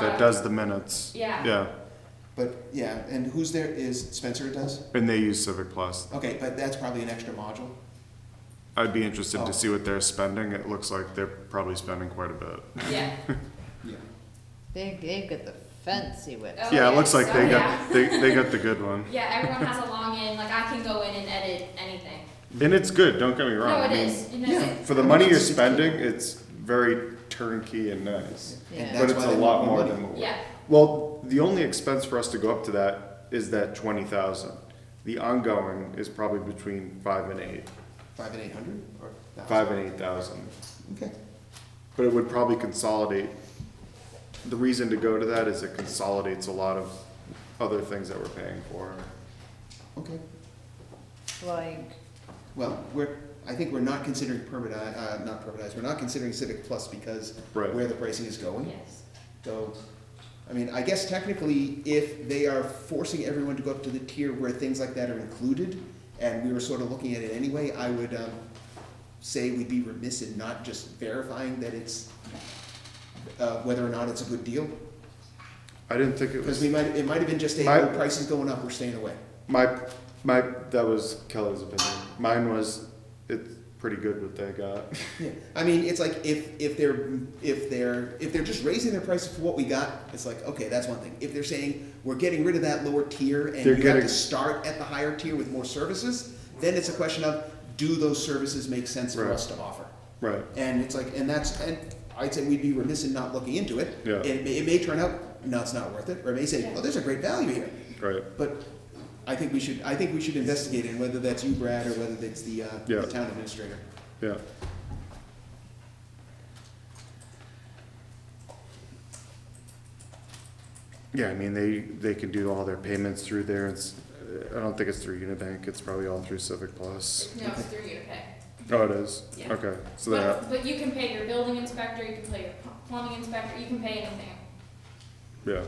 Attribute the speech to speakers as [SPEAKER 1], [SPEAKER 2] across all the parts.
[SPEAKER 1] that does the minutes.
[SPEAKER 2] Yeah.
[SPEAKER 1] Yeah,
[SPEAKER 3] But yeah, and who's there is Spencer does?
[SPEAKER 1] and they use Civic Plus.
[SPEAKER 3] Okay, but that's probably an extra module.
[SPEAKER 1] I'd be interested
[SPEAKER 3] Oh.
[SPEAKER 1] to see what they're spending. It looks like they're probably spending quite a bit.
[SPEAKER 2] Yeah.
[SPEAKER 3] Yeah.
[SPEAKER 4] They, they've got the fancy whip.
[SPEAKER 2] Oh,
[SPEAKER 1] Yeah, it looks
[SPEAKER 2] yes,
[SPEAKER 1] like they
[SPEAKER 2] oh,
[SPEAKER 1] got, they, they got the good one.
[SPEAKER 2] Yeah, everyone has a long in, like I can go in and edit anything.
[SPEAKER 1] And it's good, don't get me wrong.
[SPEAKER 2] No,
[SPEAKER 1] I
[SPEAKER 2] it
[SPEAKER 1] mean,
[SPEAKER 2] is, you know,
[SPEAKER 3] Yeah.
[SPEAKER 2] it-
[SPEAKER 1] For the money you're spending, it's very turnkey and nice.
[SPEAKER 4] Yeah.
[SPEAKER 3] And
[SPEAKER 1] But
[SPEAKER 3] that's
[SPEAKER 1] it's
[SPEAKER 3] why
[SPEAKER 1] a
[SPEAKER 3] they
[SPEAKER 1] lot
[SPEAKER 3] want
[SPEAKER 1] more
[SPEAKER 3] money.
[SPEAKER 1] than what we
[SPEAKER 2] yeah,
[SPEAKER 1] Well, the only expense for us to go up to that is that twenty thousand. The ongoing is probably between five and eight,
[SPEAKER 3] Five and eight hundred or thousand?
[SPEAKER 1] five and eight thousand.
[SPEAKER 3] Okay.
[SPEAKER 1] But it would probably consolidate, the reason to go to that is it consolidates a lot of other things that we're paying for.
[SPEAKER 3] Okay.
[SPEAKER 4] Like,
[SPEAKER 3] Well, we're I think we're not considering permit uh, not permanized. We're not considering Civic Plus because
[SPEAKER 1] Right.
[SPEAKER 3] where the pricing is going.
[SPEAKER 2] yes.
[SPEAKER 3] So, I mean, I guess technically, if they are forcing everyone to go up to the tier where things like that are included, and we were sort of looking at it anyway, I would um, say we'd be remiss in not just verifying that it's, uh, whether or not it's a good deal.
[SPEAKER 1] I didn't think it was,
[SPEAKER 3] Because we might, it might have been just a,
[SPEAKER 1] My-
[SPEAKER 3] oh, price is going up, we're staying away.
[SPEAKER 1] my, my, that was Kelly's opinion. Mine was, it's pretty good what they got.
[SPEAKER 3] Yeah. I mean, it's like if, if they're, if they're, if they're just raising their prices for what we got, it's like, okay, that's one thing. If they're saying, we're getting rid of that lower tier and
[SPEAKER 1] They're
[SPEAKER 3] you have
[SPEAKER 1] getting-
[SPEAKER 3] to start at the higher tier with more services, then it's a question of, do those services make sense for
[SPEAKER 1] Right.
[SPEAKER 3] us to offer?
[SPEAKER 1] Right,
[SPEAKER 3] And it's like, and that's, and I'd say we'd be remiss in not looking into it.
[SPEAKER 1] Yeah.
[SPEAKER 3] It, may- it may turn out, no, it's not worth it, or it may say,
[SPEAKER 2] Yeah.
[SPEAKER 3] oh, there's a great value here.
[SPEAKER 1] right.
[SPEAKER 3] But I think we should, I think we should investigate it, whether that's you, Brad, or whether that's the, uh,
[SPEAKER 1] Yeah.
[SPEAKER 3] the town administrator.
[SPEAKER 1] Yeah. Yeah, I mean, they, they can do all their payments through there, it's, I don't think it's through Unibank, it's probably all through Civic Plus.
[SPEAKER 2] No, it's through you, okay.
[SPEAKER 1] Oh, it is?
[SPEAKER 2] Yeah.
[SPEAKER 1] Okay, so that,
[SPEAKER 2] But, but you can pay your building inspector, you can pay your pl- plumbing inspector, you can pay anything.
[SPEAKER 1] yeah,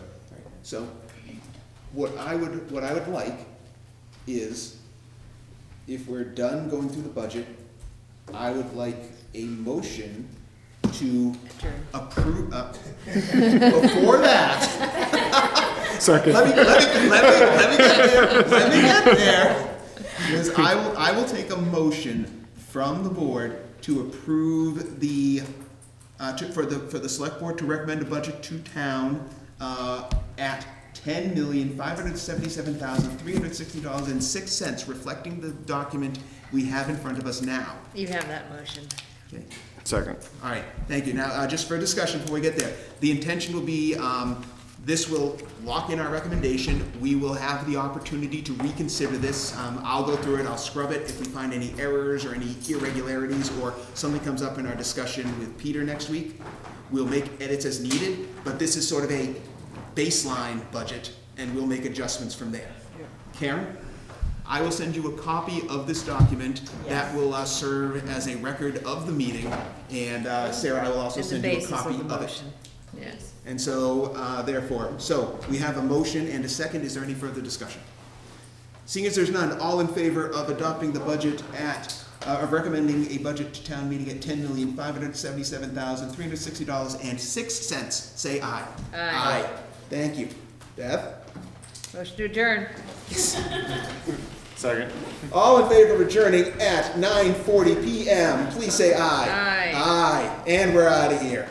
[SPEAKER 3] So, what I would, what I would like is, if we're done going through the budget, I would like a motion to approve, uh, before that,
[SPEAKER 1] second,
[SPEAKER 3] let me, let me, let me, let me get there, let me get there. Because I will, I will take a motion from the board to approve the, uh, to, for the, for the select board to recommend a budget to town, uh, at ten million, five hundred seventy-seven thousand, three hundred sixty dollars and six cents, reflecting the document we have in front of us now.
[SPEAKER 4] you have that motion.
[SPEAKER 3] Okay.
[SPEAKER 1] second,
[SPEAKER 3] All right, thank you. Now, uh, just for discussion before we get there, the intention will be, um, this will lock in our recommendation. We will have the opportunity to reconsider this. Um, I'll go through it, I'll scrub it. If we find any errors or any irregularities or something comes up in our discussion with Peter next week, we'll make edits as needed, but this is sort of a baseline budget and we'll make adjustments from there. Karen, I will send you a copy of this document that
[SPEAKER 4] Yes.
[SPEAKER 3] will uh, serve as a record of the meeting, and uh, Sarah, I will also
[SPEAKER 4] It's the
[SPEAKER 3] send you a
[SPEAKER 4] basis
[SPEAKER 3] copy
[SPEAKER 4] of the
[SPEAKER 3] of it.
[SPEAKER 4] motion. Yes.
[SPEAKER 3] And so, uh, therefore, so we have a motion and a second. Is there any further discussion? Seeing as there's none, all in favor of adopting the budget at, uh, of recommending a budget to town meeting at ten million, five hundred seventy-seven thousand, three hundred sixty dollars and six cents, say aye.
[SPEAKER 4] Aye.
[SPEAKER 3] Thank you. Deb?
[SPEAKER 4] Motion to adjourn.
[SPEAKER 1] second.
[SPEAKER 3] All in favor of adjourning at 9:40 PM, please say aye.
[SPEAKER 4] Aye.
[SPEAKER 3] Aye, and we're out of here.